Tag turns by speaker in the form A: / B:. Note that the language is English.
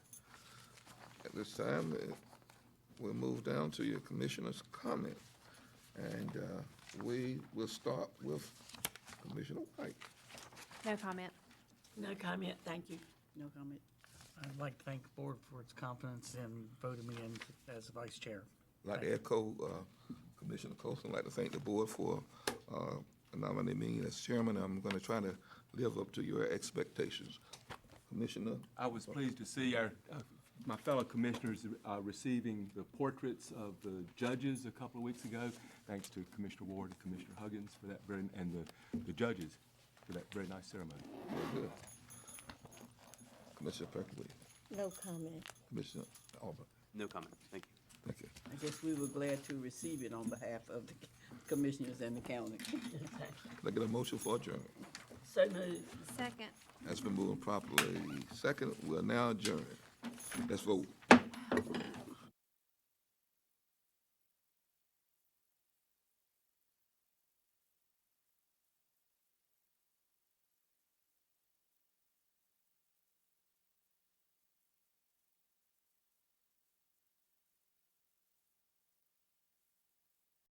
A: At this time, uh, we'll move down to your commissioner's comment. And uh, we will start with Commissioner White.
B: No comment.
C: No comment, thank you. No comment.
D: I'd like to thank the board for its confidence in voting me in as vice chair.
A: Like to echo uh, Commissioner Copeland, like to thank the board for uh, nominating me as chairman. I'm going to try to live up to your expectations. Commissioner,
E: I was pleased to see our, uh, my fellow commissioners uh, receiving the portraits of the judges a couple of weeks ago. Thanks to Commissioner Ward and Commissioner Huggins for that very, and the, the judges for that very nice ceremony.
A: very good. Commissioner Perkins,
C: No comment.
A: Commissioner Auburn,
F: No comment, thank you.
A: thank you.
G: I guess we were glad to receive it on behalf of the commissioners and the county.
A: Can I get a motion for adjournment?
C: So moved.
B: Second.
A: That's been moved properly. Second, we're now adjourned. Let's vote.